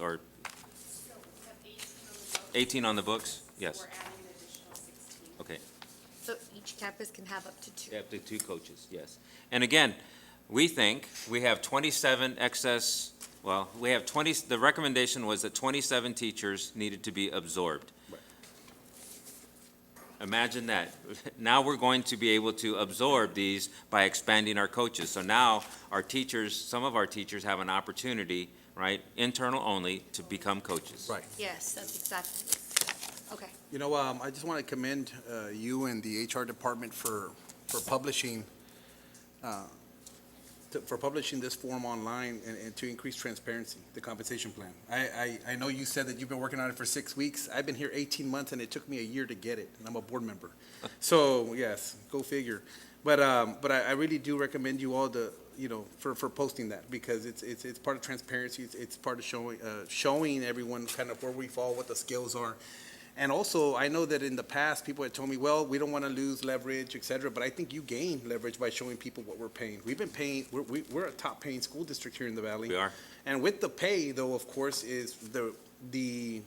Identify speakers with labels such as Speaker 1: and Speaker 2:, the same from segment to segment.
Speaker 1: or 18 on the books? Yes,
Speaker 2: We're adding an additional 16.
Speaker 1: okay.
Speaker 3: So each campus can have up to two.
Speaker 1: Up to two coaches, yes. And again, we think we have 27 excess, well, we have 20, the recommendation was that 27 teachers needed to be absorbed. Imagine that. Now we're going to be able to absorb these by expanding our coaches. So now our teachers, some of our teachers have an opportunity, right, internal only, to become coaches.
Speaker 4: Right.
Speaker 3: Yes, that's exactly. Okay.
Speaker 4: You know, um, I just want to commend uh, you and the HR department for, for publishing, uh, to- for publishing this form online and, and to increase transparency, the compensation plan. I, I, I know you said that you've been working on it for six weeks. I've been here 18 months and it took me a year to get it, and I'm a board member. So, yes, go figure. But, um, but I, I really do recommend you all to, you know, for, for posting that because it's, it's, it's part of transparency. It's, it's part of showing, uh, showing everyone kind of where we fall, what the skills are. And also, I know that in the past, people had told me, well, we don't want to lose leverage, et cetera, but I think you gain leverage by showing people what we're paying. We've been paying, we're, we- we're a top paying school district here in the valley.
Speaker 1: We are.
Speaker 4: And with the pay, though, of course, is the, the,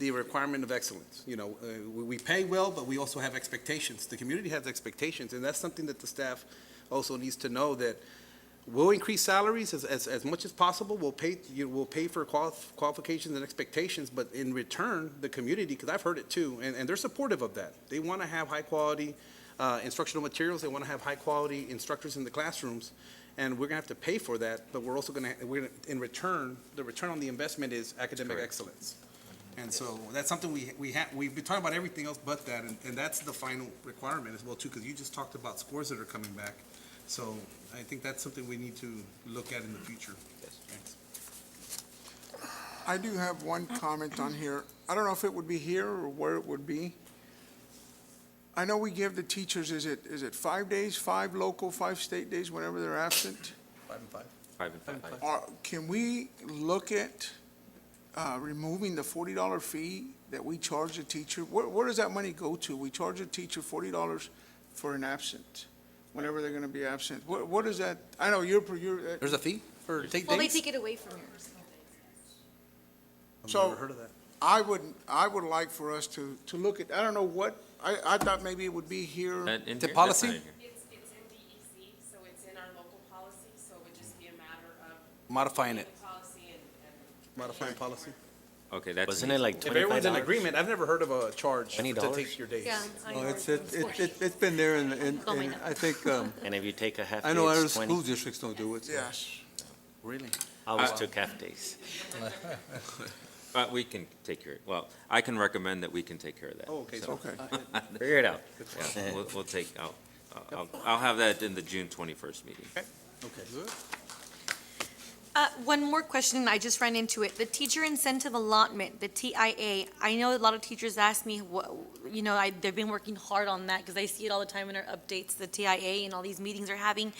Speaker 4: the requirement of excellence. You know, uh, we, we pay well, but we also have expectations. The community has expectations, and that's something that the staff also needs to know that we'll increase salaries as, as, as much as possible. We'll pay, you, we'll pay for qual- qualifications and expectations, but in return, the community, because I've heard it too, and, and they're supportive of that. They want to have high quality uh, instructional materials. They want to have high quality instructors in the classrooms. And we're going to have to pay for that, but we're also going to, we're, gonna- in return, the return on the investment is academic
Speaker 1: Correct.
Speaker 4: excellence. And so that's something we, we have, we've been talking about everything else but that, and, and that's the final requirement as well too, because you just talked about scores that are coming back. So I think that's something we need to look at in the future. Thanks.
Speaker 5: I do have one comment on here. I don't know if it would be here or where it would be. I know we give the teachers, is it, is it five days, five local, five state days, whenever they're absent?
Speaker 4: Five and five.
Speaker 1: Five and five.
Speaker 5: Or can we look at uh, removing the forty dollar fee that we charge the teacher? Where, where does that money go to? We charge a teacher forty dollars for an absent, whenever they're gonna be absent. What, what is that? I know you're, per- you're, uh,
Speaker 4: There's a fee for take
Speaker 3: Well, they
Speaker 4: days?
Speaker 3: take it away from you.
Speaker 4: I've
Speaker 5: So-
Speaker 4: never heard of that.
Speaker 5: I would, I would like for us to, to look at, I don't know what, I, I thought maybe it would be here.
Speaker 1: That in
Speaker 4: The
Speaker 1: here? That's not
Speaker 4: policy?
Speaker 1: in here.
Speaker 2: It's, it's in DEC, so it's in our local policy, so it would just be a matter of.
Speaker 4: Modifying it,
Speaker 2: the Policy and, and.
Speaker 4: modifying policy.
Speaker 1: Okay, that's.
Speaker 6: Wasn't it like
Speaker 4: If
Speaker 6: twenty-five
Speaker 4: everyone's in
Speaker 6: dollars?
Speaker 4: agreement, I've never heard of a charge
Speaker 6: Twenty
Speaker 4: to
Speaker 6: dollars?
Speaker 4: take your days.
Speaker 3: Yeah. I
Speaker 7: No,
Speaker 3: know
Speaker 7: Oh, it's,
Speaker 3: it's
Speaker 7: it- it, it- it's been there, and, and
Speaker 3: Oh, my
Speaker 7: and
Speaker 3: God.
Speaker 7: I think, um,
Speaker 6: And if you take a half day,
Speaker 7: I know other
Speaker 6: it's
Speaker 7: school
Speaker 6: twenty.
Speaker 7: districts don't do it. so.
Speaker 5: Yes.
Speaker 4: Really?
Speaker 6: I always took half days.
Speaker 1: But Uh, we can take care, well, I can recommend that we can take care of that.
Speaker 4: Oh, okay,
Speaker 1: So,
Speaker 4: so-
Speaker 5: Okay.
Speaker 6: Figure it out.
Speaker 1: yeah, We'll, we'll take, I'll, I'll, I'll have that in the June twenty-first meeting.
Speaker 4: Okay.
Speaker 3: Uh, one more question, I just ran into it. The teacher incentive allotment, the TIA, I know a lot of teachers ask me, wha- you know, I, they've been working hard on that because I see it all the time in our updates, the TIA and all these meetings are having.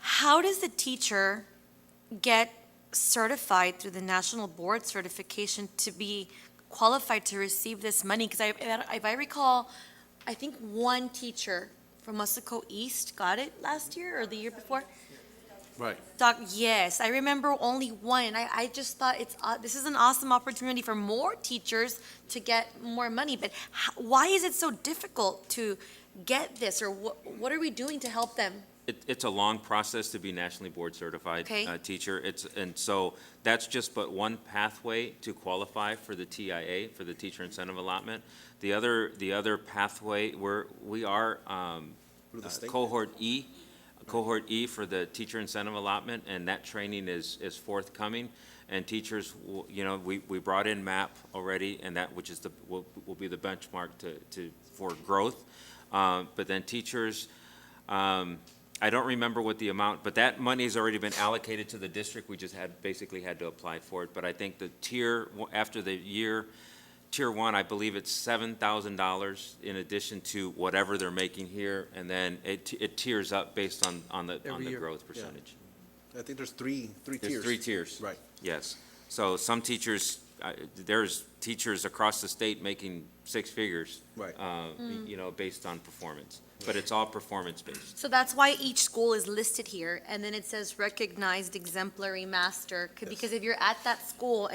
Speaker 3: How does the teacher get certified through the national board certification to be qualified to receive this money? Because I, if I recall, I think one teacher from Musco East got it last year or the year before.
Speaker 4: Right.
Speaker 3: Doc, yes, I remember only one, and I, I just thought it's, uh, this is an awesome opportunity for more teachers to get more money, but h- why is it so difficult to get this, or what, what are we doing to help them?
Speaker 1: It, it's a long process to be nationally board certified.
Speaker 3: Okay.
Speaker 1: uh, Teacher, it's, and so that's just but one pathway to qualify for the TIA, for the teacher incentive allotment. The other, the other pathway, we're, we are, um,
Speaker 4: Through the
Speaker 1: uh,
Speaker 4: state?
Speaker 1: cohort E, cohort E for the teacher incentive allotment, and that training is, is forthcoming. And teachers, will- you know, we, we brought in MAP already, and that, which is the, will, will be the benchmark to, to, for growth. Uh, but then teachers, um, I don't remember what the amount, but that money's already been allocated to the district. We just had, basically had to apply for it. But I think the tier, after the year, tier one, I believe it's seven thousand dollars in addition to whatever they're making here, and then it, it tiers up based on, on the, on
Speaker 7: Every
Speaker 1: the
Speaker 7: year,
Speaker 1: growth
Speaker 7: yeah.
Speaker 1: percentage.
Speaker 4: I think there's three, three tiers.
Speaker 1: There's three tiers.
Speaker 4: Right.
Speaker 1: Yes. So some teachers, uh, there's teachers across the state making six figures.
Speaker 4: Right.
Speaker 1: Uh, you know, based on performance, but it's all performance-based.
Speaker 3: So that's why each school is listed here, and then it says recognized exemplary master, c- because if you're at that school